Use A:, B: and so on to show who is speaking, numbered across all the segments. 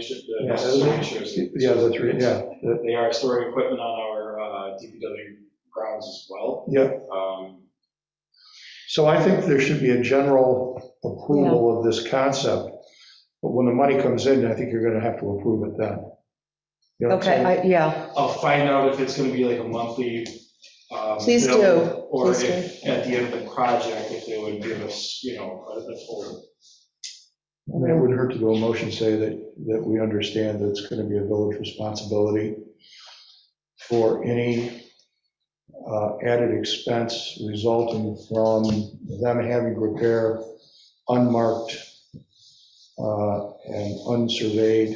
A: should, uh, the
B: Yeah.
A: necessary issues.
B: The other three, yeah, the-
A: They are storing equipment on our uh, DPW grounds as well.
B: yeah.
A: Um,
B: So I think there should be a general approval of this concept, but when the money comes in, I think you're going to have to approve it then. You know what I'm
C: Okay,
B: saying?
C: I- yeah,
A: I'll find out if it's going to be like a monthly. um,
C: Please
A: bill,
C: do.
A: Or
C: Please
A: if, at the end of the project, if they would give us, you know, a- the full.
B: I mean, It wouldn't hurt to go a motion, say that, that we understand that it's going to be a village responsibility for any uh, added expense resulting from them having to repair unmarked uh, and unsurveyed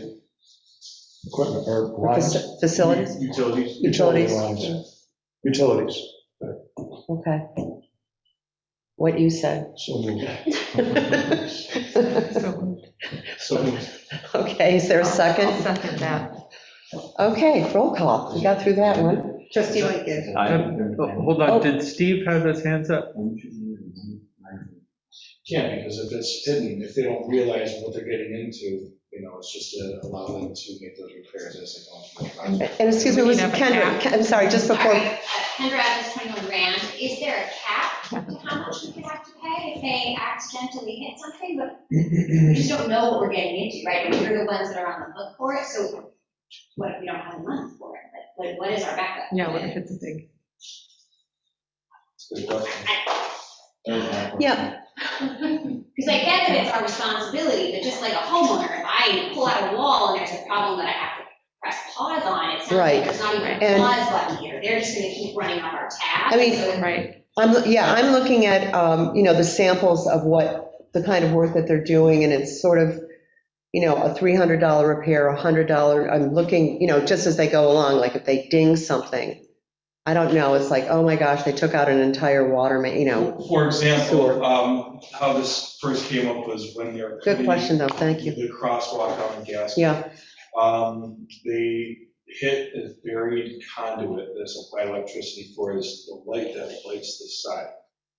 B: equipment or lines.
C: Fac- facilities,
A: Utilities.
C: utilities,
B: lines. Utilities,
C: okay. What you said.
B: so moved.
C: Okay,
D: So,
A: So
C: is there a
D: I'll
C: second?
D: second that.
C: Okay, roll call, we got through that one.
E: Trustee Lightgev.
F: Um, oh, Hold
C: Oh.
F: on, did Steve have his hands up?
A: can't, because if it's hidden, if they don't realize what they're getting into, you know, it's just to allow them to make those repairs as they go through the project.
C: And excuse me, was it Kendra, I'm sorry, just before,
G: Sorry, uh, Kendra Adams, 21 Rand, is there a cap to how much we could have to pay if they accidentally hit something? But we just don't know what we're getting into, right? And we're the ones that are on the hook for it, so what if we don't have a month for it? Like, what- what is our backup?
D: Yeah, what if it's a big,
A: Good question.
C: yeah,
G: Because I get that it's our responsibility, but just like a homeowner, if I pull out a wall and there's a problem that I have to press pause on, it's not
C: Right.
G: like there's not even a
C: And-
G: pause button here. They're just going to keep running off our tab.
C: I mean,
G: so-
D: right,
C: I'm, yeah, I'm looking at, um, you know, the samples of what, the kind of work that they're doing, and it's sort of, you know, a $300 repair, a $100, I'm looking, you know, just as they go along, like if they ding something, I don't know, it's like, oh my gosh, they took out an entire water main, you know.
A: For
C: Sewer.
A: example, um, how this first came up was when they're.
C: Good question, though, thank you.
A: The crosswalk on the gas.
C: Yeah,
A: Um, they hit a buried conduit that's applied electricity for this, the light that lights the side.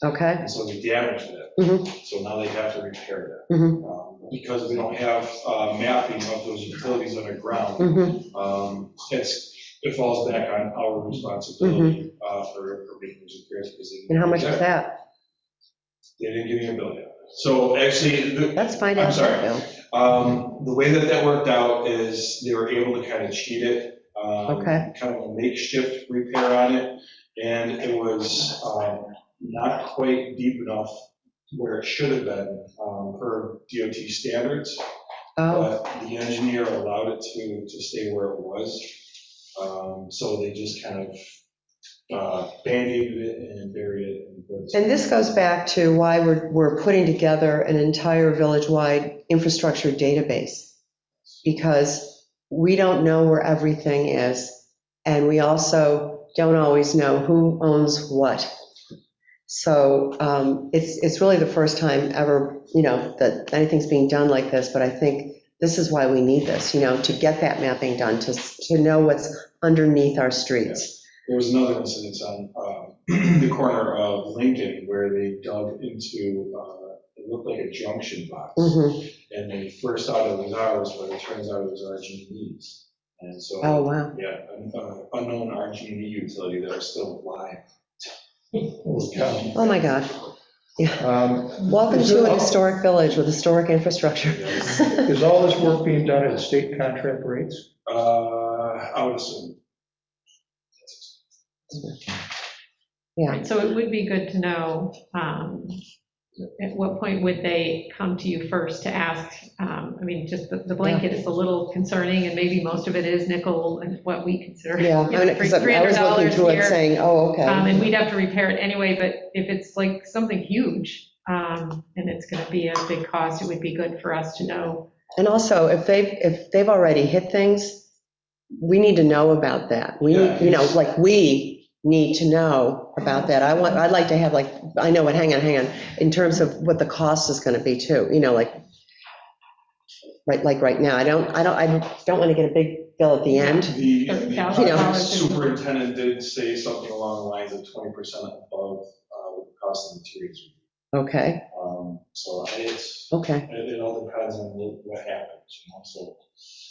C: okay,
A: And so they damaged that.
C: Mm-hmm.
A: So now they have to repair that.
C: mhm,
A: Um, Because we don't have, uh, mapping of those utilities underground,
C: mhm,
A: um, it's, it falls back on our responsibility, uh, for, for making those repairs. because they-
C: Mm-hmm. and how much was that?
A: They didn't give me a bill yet. So actually, the,
C: Let's find
A: I'm
C: out.
A: sorry.
C: Bill.
A: Um, the way that that worked out is they were able to kind of cheat it. um,
C: Okay.
A: Kind of a makeshift repair on it, and it was, um, not quite deep enough where it should have been, um, per DOT standards.
C: Oh,
A: But the engineer allowed it to, to stay where it was. Um, so they just kind of, uh, band-aided it and buried it. and put it-
C: and this goes back to why we're, we're putting together an entire village-wide infrastructure database. Because we don't know where everything is, and we also don't always know who owns what. So um, it's, it's really the first time ever, you know, that anything's being done like this, but I think this is why we need this, you know, to get that mapping done, to, to know what's underneath our streets.
A: There was another incident on um, the corner of Lincoln where they dug into, uh, it looked like a junction box.
C: Mhm.
A: And they first thought it was ours, but it turns out it was RG&E's. And
C: Oh,
A: so,
C: wow.
A: yeah, an uh, unknown RG&E utility that are still alive.
C: Oh, my God.
B: Um,
C: Welcome
B: is
C: to
B: it-
C: an historic village with historic infrastructure.
B: Is all this work being done at state contract rates?
A: Uh, I would assume.
C: Yeah.
D: so it would be good to know, um, at what point would they come to you first to ask? Um, I mean, just the the blanket is a little concerning, and maybe most of it is nickel and what we consider.
C: Yeah, I
D: you know,
C: mean, 'cause I was
D: $300
C: looking through
D: here.
C: it saying, oh,
D: Um,
C: okay.
D: And we'd have to repair it anyway, but if it's like something huge, um, and it's going to be a big cost, it would be good for us to know.
C: And also, if they've, if they've already hit things, we need to know about that. We,
A: Yeah.
C: need- you know, like, we need to know about that. I want, I'd like to have like, I know, what. hang on, hang on, in terms of what the cost is going to be too, you know, like, right, like right now, I don't, I don't, I don't want to get a big bill at the end.
A: The
D: Thirty
A: the
D: thousand
A: project
D: dollars.
A: superintendent did say something along the lines of 20% above uh, what the cost of materials.
C: Okay,
A: Um, So I- it's,
C: okay.
A: It, it all depends on what what happens, you know, so.